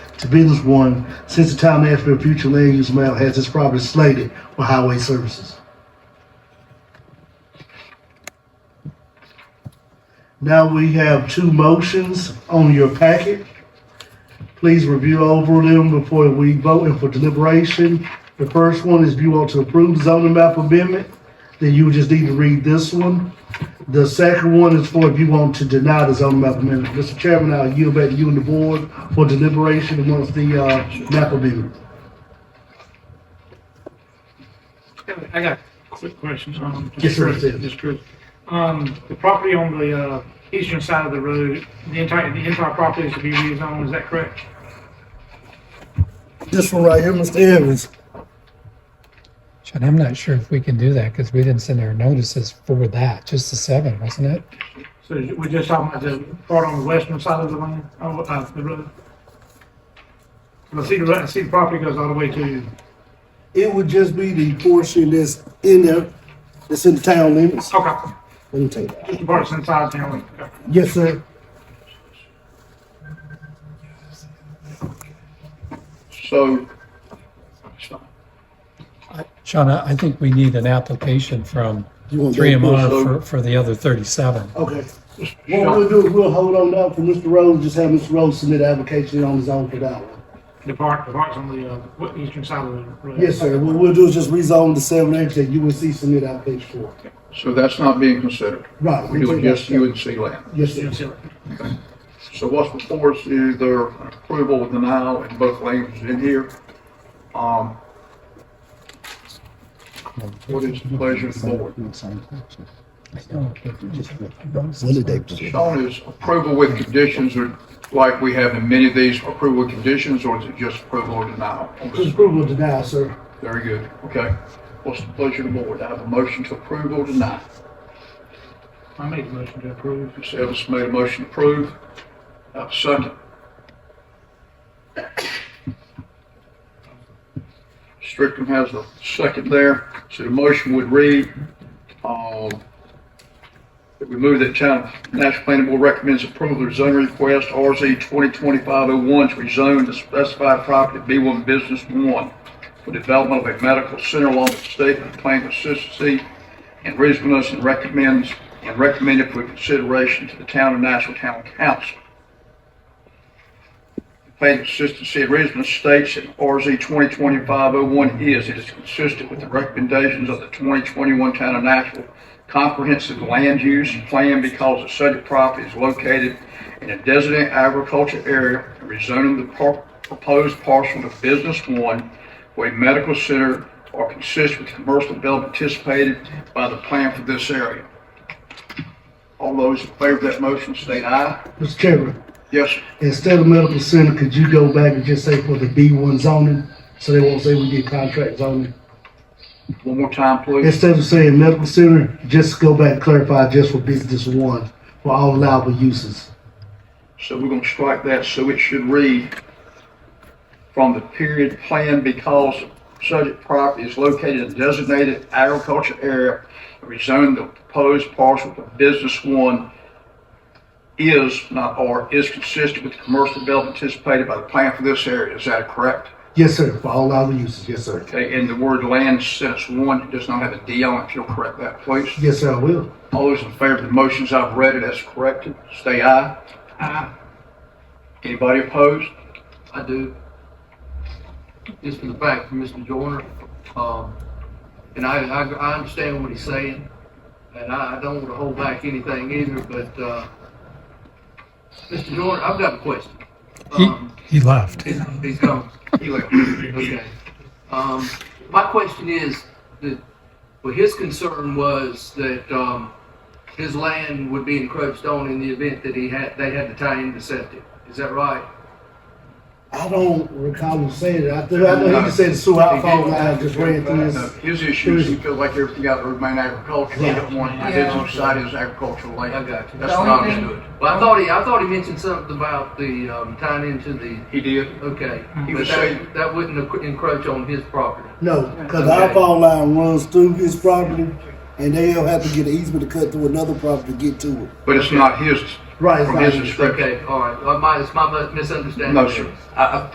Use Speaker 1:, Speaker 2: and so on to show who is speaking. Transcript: Speaker 1: to business one since the time Nashville Future Land Use Map has its property slated for highway services. Now we have two motions on your packet. Please review over them before we vote and for deliberation. The first one is if you want to approve zoning map amendment, then you just need to read this one. The second one is for if you want to deny the zoning map amendment. Mr. Chairman, I'll yield back to you and the board for deliberation amongst the, uh, map amendment.
Speaker 2: I got a quick question. um,
Speaker 1: Yes, sir, it is.
Speaker 2: Just true. Um, the property on the, uh, eastern side of the road, the entire, the entire property is to be rezoned, is that correct?
Speaker 1: This one right here, Mr. Evans.
Speaker 3: John, I'm not sure if we can do that because we didn't send our notices for that, just the seven, wasn't it?
Speaker 2: So we're just talking about the part on the western side of the land, oh, uh, the road? I see the, re- I see the property goes all the way to,
Speaker 1: It would just be the portion that's in there, that's in the town limits.
Speaker 2: okay,
Speaker 1: Let me take that.
Speaker 2: just the parts inside town, okay.
Speaker 1: Yes, sir.
Speaker 4: So,
Speaker 3: Sean, I I think we need an application from
Speaker 1: You want
Speaker 3: three
Speaker 1: that?
Speaker 3: M R
Speaker 4: so-
Speaker 3: for, for the other thirty-seven.
Speaker 1: Okay. What we'll do is we'll hold on now for Mr. Rose, just have Mr. Rose submit an application on his own for that one.
Speaker 2: The part, the parts on the, uh, w- eastern side of the road.
Speaker 1: Yes, sir. What we'll do is just rezone the seven acres that UNC submit application for.
Speaker 4: so that's not being considered.
Speaker 1: Right.
Speaker 4: We would just UNC land.
Speaker 1: Yes,
Speaker 2: You
Speaker 1: sir.
Speaker 2: don't see it.
Speaker 4: So what's before us is their approval of denial in both languages in here. Um, What is the pleasure of the board?
Speaker 5: What did they do?
Speaker 4: Sean, is approval with conditions or like we have in many of these, approval with conditions, or is it just approval or denial?
Speaker 1: Just approval denied, sir.
Speaker 4: Very good, okay. What's the pleasure of the board? I have a motion to approve or deny.
Speaker 2: I made the motion to approve.
Speaker 4: Ms. Evans made a motion to approve. I have a second. Strickland has a second there. So the motion would read, um, that we move that China National Planning Board recommends approval of zoning request RZ 202501 to rezone the specified property B1 Business 1 for development of a medical center along with statement of plan consistency and reasonableness and recommends, and recommended for consideration to the town of Nashville Town Council. The Plan consistency and reasonableness states that RZ 202501 is, it is consistent with the recommendations of the 2021 Town of Nashville Comprehensive Land Use Plan because the subject property is located in a designated agriculture area, and rezoning the par- proposed parcel to Business One for a medical center are consistent with the commercial development anticipated by the plan for this area. All those in favor of that motion state aye.
Speaker 1: Mr. Chairman,
Speaker 4: Yes, sir.
Speaker 1: instead of medical center, could you go back and just say for the B one zoning? So they won't say we did contract zoning.
Speaker 4: one more time, please.
Speaker 1: Instead of saying medical center, just go back and clarify just for business one, for all allowable uses.
Speaker 4: So we're gonna strike that, so it should read from the period planned because subject property is located in designated agriculture area, rezoned the proposed parcel to business one is, not or, is consistent with the commercial development anticipated by the plan for this area. Is that correct?
Speaker 1: Yes, sir, for all allowable uses. Yes, sir.
Speaker 4: Okay, and the word land since one does not have a D on it, if you'll correct that, please.
Speaker 1: Yes, sir, I will.
Speaker 4: All those in favor of the motions I've read it as corrected, say aye.
Speaker 2: Aye.
Speaker 4: Anybody opposed?
Speaker 6: I do. Just for the fact from Mr. Joyner, um, and I, I, I understand what he's saying, and I, I don't want to hold back anything either, but, uh, Mr. Joyner, I've got a question.
Speaker 3: He,
Speaker 6: Um,
Speaker 3: he left.
Speaker 6: he's, he's gone.
Speaker 4: He left.
Speaker 6: Okay. Um, my question is that, well, his concern was that, um, his land would be encroached on in the event that he had, they had to tie into septic. Is that right?
Speaker 1: I don't recall him saying that. I think, I know he just said the sewer outfall line just ran through
Speaker 4: No,
Speaker 1: his.
Speaker 4: His issue is he feels like everything out there remain agricultural, he don't want, his side is agricultural land.
Speaker 6: I got you.
Speaker 4: That's what I understood.
Speaker 6: Well, I thought he, I thought he mentioned something about the, um, tying into the,
Speaker 4: He did.
Speaker 6: okay.
Speaker 4: Hmm. He
Speaker 6: But
Speaker 4: was saying-
Speaker 6: that, that wouldn't encro- encroach on his property.
Speaker 5: No, because the outfall line runs through his property, and they'll have to get an easement to cut through another property to get to it.
Speaker 4: But it's not his,
Speaker 1: Right, it's
Speaker 4: from
Speaker 1: not
Speaker 4: his
Speaker 1: his.
Speaker 4: description.
Speaker 6: Okay, all right. Well, my, it's my misunderstanding.
Speaker 4: No, sir. I, I